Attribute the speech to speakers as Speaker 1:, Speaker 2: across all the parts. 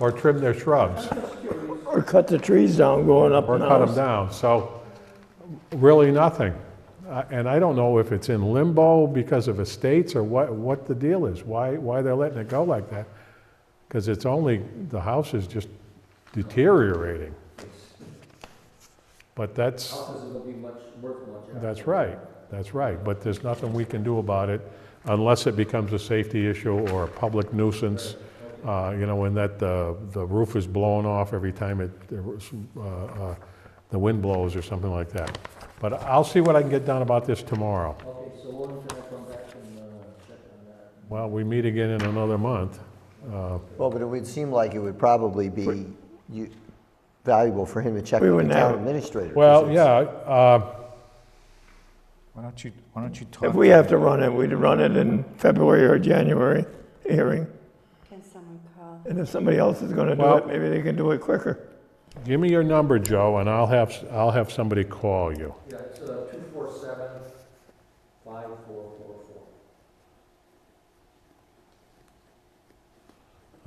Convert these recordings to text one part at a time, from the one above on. Speaker 1: or trim their shrubs
Speaker 2: Or cut the trees down going up
Speaker 1: or
Speaker 2: and
Speaker 1: cut them
Speaker 2: out.
Speaker 1: down. So really nothing. Uh, And I don't know if it's in limbo because of estates or what, what the deal is, why, why they're letting it go like that. Because it's only, the house is just deteriorating. But that's.
Speaker 3: Houses will be much, worth much. after.
Speaker 1: That's right, that's right, but there's nothing we can do about it unless it becomes a safety issue or a public nuisance, uh, you know, in that the, the roof is blown off every time it, uh, uh, the wind blows or something like that. But I'll see what I can get done about this tomorrow.
Speaker 3: Okay, so when can I come back and, uh, check on that?
Speaker 1: Well, we meet again in another month. Uh,
Speaker 4: Well, but it would seem like it would probably be you- valuable for him to check
Speaker 2: We
Speaker 4: with the
Speaker 2: wouldn't
Speaker 4: town
Speaker 2: have-
Speaker 4: administrator. 'cause
Speaker 1: Well,
Speaker 4: it's-
Speaker 1: yeah, uh,
Speaker 5: Why don't you, why don't you talk?
Speaker 2: If we have to run it, we'd run it in February or January hearing.
Speaker 6: Can someone call?
Speaker 2: And if somebody else is gonna do
Speaker 1: Well-
Speaker 2: it, maybe they can do it quicker.
Speaker 1: give me your number, Joe, and I'll have, I'll have somebody call you.
Speaker 3: Yeah, it's, uh, two four seven, five four four four.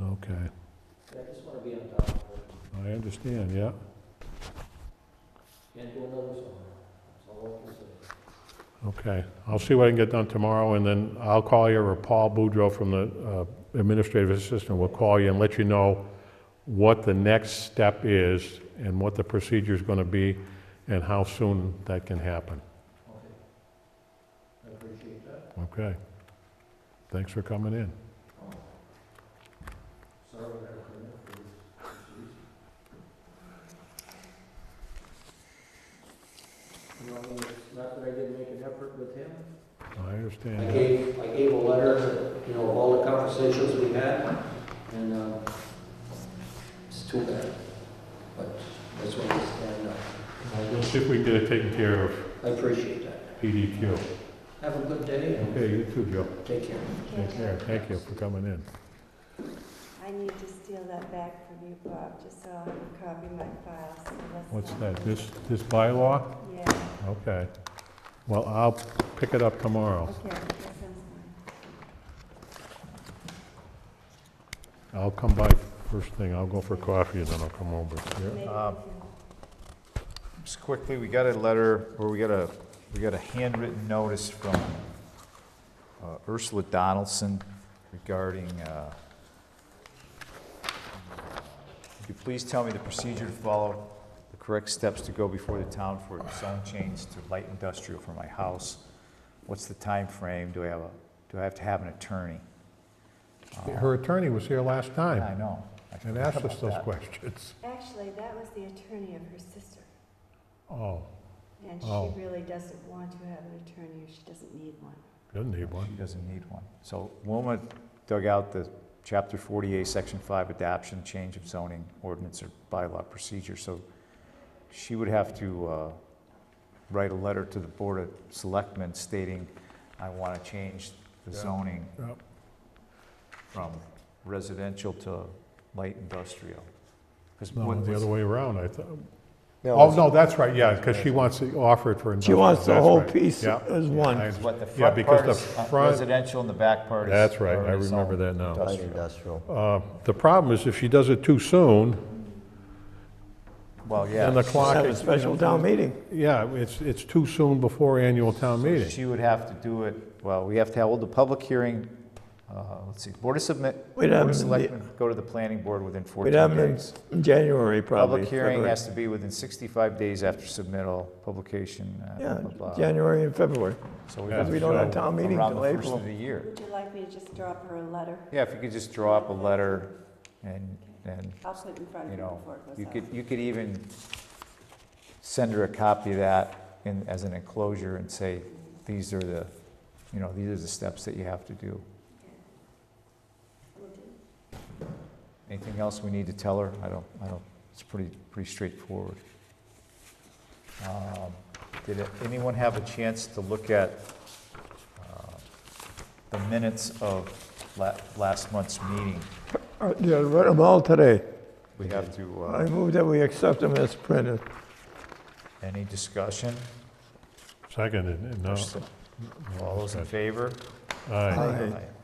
Speaker 1: Okay,
Speaker 3: Yeah, I just wanna be on top of it,
Speaker 1: I understand, yeah.
Speaker 3: can't do another summer, that's all I can say.
Speaker 1: Okay, I'll see what I can get done tomorrow, and then I'll call you, or Paul Boudreau from the uh, administrative assistant will call you and let you know what the next step is, and what the procedure is gonna be, and how soon that can happen,
Speaker 3: Okay. I appreciate that.
Speaker 1: okay? Thanks for coming in.
Speaker 3: Sorry, I had to come in for this. this reason. You know, it's not that I didn't make an effort with him.
Speaker 1: I
Speaker 3: I
Speaker 1: understand. that.
Speaker 3: gave, I gave a letter, you know, of all the conversations we had, and, um, it's too bad. But that's what we stand up.
Speaker 1: We'll see if we can get it taken care of,
Speaker 3: I appreciate that.
Speaker 1: PDQ.
Speaker 3: Have a good day and
Speaker 1: Okay, you too, Joe.
Speaker 3: take care.
Speaker 1: Take care, thank you for coming in.
Speaker 6: I need to steal that back from you, Bob, just so I can copy my files. so that's
Speaker 1: What's
Speaker 6: not-
Speaker 1: that, this, this bylaw?
Speaker 6: Yeah,
Speaker 1: Okay. Well, I'll pick it up tomorrow.
Speaker 6: okay, that sounds fine.
Speaker 1: I'll come by first thing, I'll go for coffee and then I'll come over.
Speaker 6: Maybe we
Speaker 5: Uh,
Speaker 6: can-
Speaker 5: Just quickly, we got a letter, or we got a, we got a handwritten notice from uh, Ursula Donaldson regarding, uh, could you please tell me the procedure to follow, the correct steps to go before the town for zone change to light industrial for my house? What's the time frame? Do I have a, do I have to have an attorney?
Speaker 1: Her attorney was here last
Speaker 5: I
Speaker 1: time
Speaker 5: know. I
Speaker 1: and
Speaker 5: forgot
Speaker 1: asked us
Speaker 5: about
Speaker 1: those
Speaker 5: that.
Speaker 1: questions.
Speaker 6: Actually, that was the attorney of her sister,
Speaker 1: Oh,
Speaker 6: and
Speaker 1: Oh.
Speaker 6: she really doesn't want to have an attorney, or she doesn't need one.
Speaker 1: doesn't need one.
Speaker 5: She doesn't need one. So Wilma dug out the chapter 48, section 5, adoption, change of zoning ordinance or bylaw procedure. So she would have to uh, write a letter to the Board of Selectmen stating, I want to change the
Speaker 1: Yeah.
Speaker 5: zoning
Speaker 1: Yep.
Speaker 5: from residential to light industrial. 'Cause
Speaker 1: No,
Speaker 5: what
Speaker 1: the
Speaker 5: was-
Speaker 1: other way around, I thought.
Speaker 4: No,
Speaker 1: Oh,
Speaker 4: it's-
Speaker 1: no, that's right, yeah, because she wants to offer it for
Speaker 2: She
Speaker 1: industrial.
Speaker 2: wants the
Speaker 1: that's
Speaker 2: whole
Speaker 1: right.
Speaker 2: piece
Speaker 1: Yeah,
Speaker 2: as
Speaker 1: yeah,
Speaker 2: one.
Speaker 1: I understand.
Speaker 5: What the
Speaker 1: Yeah,
Speaker 5: front
Speaker 1: because
Speaker 5: part
Speaker 1: the
Speaker 5: is uh,
Speaker 1: front,
Speaker 5: residential and the back part is.
Speaker 1: That's right. I
Speaker 5: or is
Speaker 1: remember
Speaker 5: all
Speaker 1: that now.
Speaker 4: Light
Speaker 5: industrial.
Speaker 4: industrial.
Speaker 1: uh, the problem is if she does it too soon,
Speaker 5: Well, yeah.
Speaker 1: and the
Speaker 5: she-
Speaker 1: clock
Speaker 2: Have a
Speaker 1: is,
Speaker 2: special town meeting.
Speaker 1: yeah, it's, it's too soon before annual town meeting.
Speaker 5: She would have to do it, well, we have to hold the public hearing, uh, let's see, Board of Submit,
Speaker 2: We'd
Speaker 5: Board
Speaker 2: have
Speaker 5: of
Speaker 2: them in the-
Speaker 5: Selectmen, go to the planning board within
Speaker 2: We'd
Speaker 5: 14
Speaker 2: have them
Speaker 5: days.
Speaker 2: in January, probably.
Speaker 5: Public hearing
Speaker 2: February.
Speaker 5: has to be within 65 days after submittal, publication, uh, blah, blah,
Speaker 2: Yeah,
Speaker 5: blah.
Speaker 2: January and February.
Speaker 5: So we
Speaker 1: Yeah,
Speaker 5: have to
Speaker 2: We don't have
Speaker 5: show
Speaker 2: town meeting
Speaker 5: around
Speaker 2: till
Speaker 5: the first
Speaker 2: April.
Speaker 5: of the year.
Speaker 6: Would you like me to just drop her a letter?
Speaker 5: Yeah, if you could just draw up a letter and, and,
Speaker 6: I'll put it in front
Speaker 5: you
Speaker 6: of you
Speaker 5: know,
Speaker 6: before it goes out.
Speaker 5: you could, you could even send her a copy of that in, as an enclosure and say, these are the, you know, these are the steps that you have to do.
Speaker 6: Will do.
Speaker 5: Anything else we need to tell her? I don't, I don't, it's pretty, pretty straightforward. Um, Did anyone have a chance to look at uh, the minutes of la- last month's meeting?
Speaker 2: All right, Uh, Yeah, I read them all today.
Speaker 5: We have to,
Speaker 2: I
Speaker 5: uh,
Speaker 2: move that we accept them as printed.
Speaker 5: any discussion?
Speaker 1: Seconded, no.
Speaker 5: All those in favor?
Speaker 1: Aye.
Speaker 2: Aye.
Speaker 5: Aye.